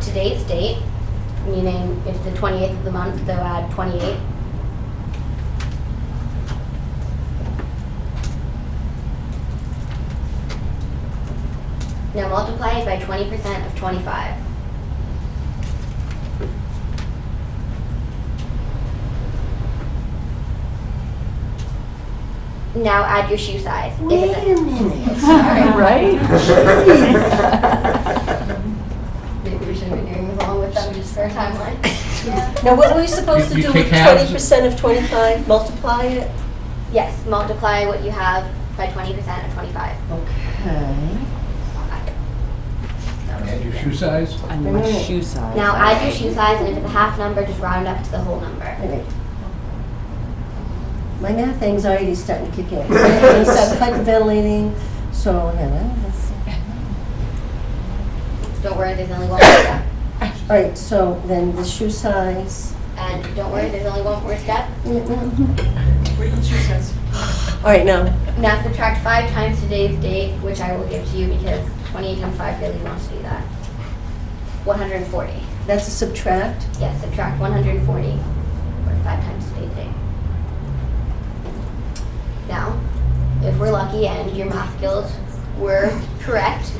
today's date, meaning it's the 28th of the month, they'll add 28. Now multiply it by 20% of 25. Now add your shoe size. If Wait it's- a minute. Right? Maybe we shouldn't be doing this along with them just for a timeline. Now, what were we supposed to You- do you with take halves. twenty percent of twenty-five, multiply it? Yes, multiply what you have by twenty percent of twenty-five. Okay. And your shoe size? And my shoe size. Now add your shoe size, and if it's a half number, just round up to the whole number. Wait a minute. My math anxiety is starting to kick in. I start hyperventilating, so, yeah, well, that's, Don't worry, there's only one word step. all right, so then the shoe size. And don't worry, there's only one word step. Mm-mm. mm-hmm. All right, now, Now subtract five times today's date, which I will give to you because twenty-eight times five really wants to do that. One hundred and forty. that's a subtract. Yes, subtract one hundred and forty, or five times today's date. Now, if we're lucky and your math skills were correct,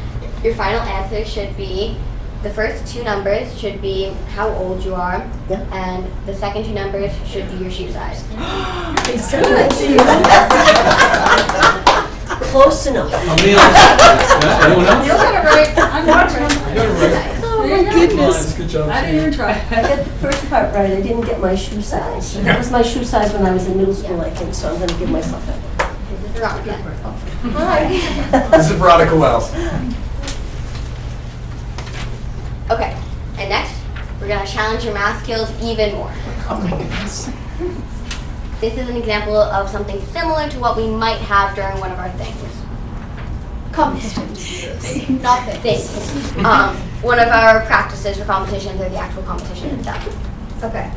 your final answer should be, the first two numbers should be how old you are, Yeah. and the second two numbers should be your shoe size. Close enough. Emil, Yeah, anyone You're else? gonna write I'm watching. I got it right. Oh, There you my go. goodness. Good job. I didn't even try. I got the first part right, I didn't get my shoe size. That was my shoe size when I was in middle school, I think, so I'm gonna give myself that. this is wrong again. This is Veronica Wells. Okay, and next, we're gonna challenge your math skills even more. This is an example of something similar to what we might have during one of our things. Competitions. Not the things. Um, one of our practices for competitions or the actual competition itself. Okay.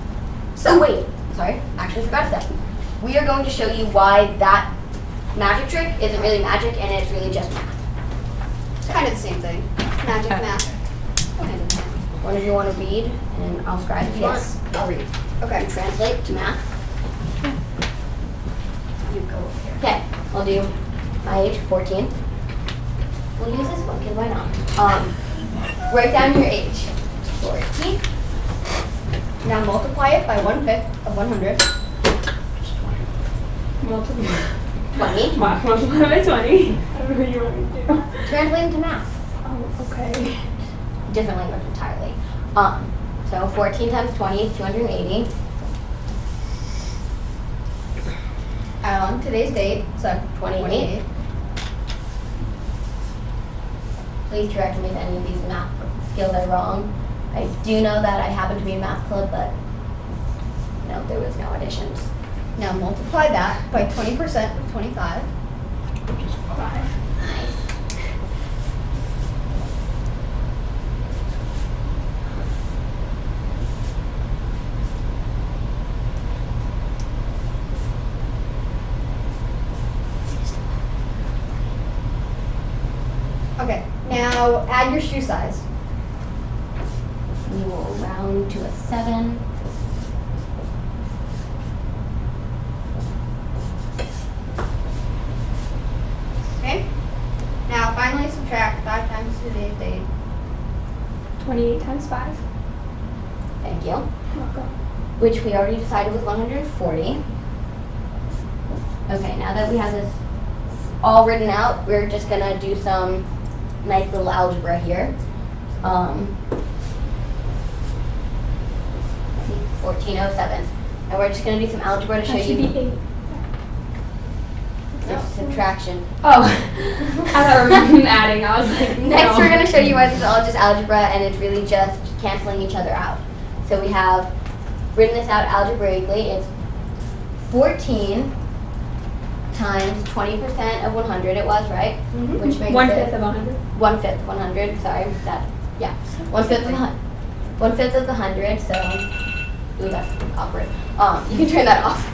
So wait, sorry, actually forgot that. We are going to show you why that magic trick isn't really magic and it's really just math. It's kind of the same thing. Magic, math. One of you want to read and I'll scribe if you want. Yes. I'll read. Okay. translate to math. You go over here. Okay, I'll do my age, 14. We'll use this one, because why not? Um, write down your age, 14. Now multiply it by one fifth of 100. 20. Multiply by 20. I don't know what you want me to do. Translate into math. Oh, okay. Different language entirely. Um, so 14 times 20 is 280. Um, today's date, so 28. Please correct me if any of these math skills are wrong. I do know that I happen to be in math club, but no, there was no additions. Now multiply that by 20% of 25. Nice. Okay, now add your shoe size. We will round to a seven. Okay, now finally subtract five times today's date. 28 times 5. Thank you. Welcome. Which we already decided was 140. Okay, now that we have this all written out, we're just gonna do some nice little algebra here. Um, let's see, 1407. And we're just gonna do some algebra to show That should you be 8. the subtraction. Oh. I thought we were adding. I was like, no. Next, we're going to show you why this is all just algebra and it's really just canceling each other out. So we have written this out algebraically. It's 14 times 20% of 100, it was, right? Which makes One it fifth Mm-hmm. of 100. one fifth, 100. Sorry, that, yeah. One fifth of, hun- one fifth of the 100, so, ooh, that's awkward. Um, you can turn that off.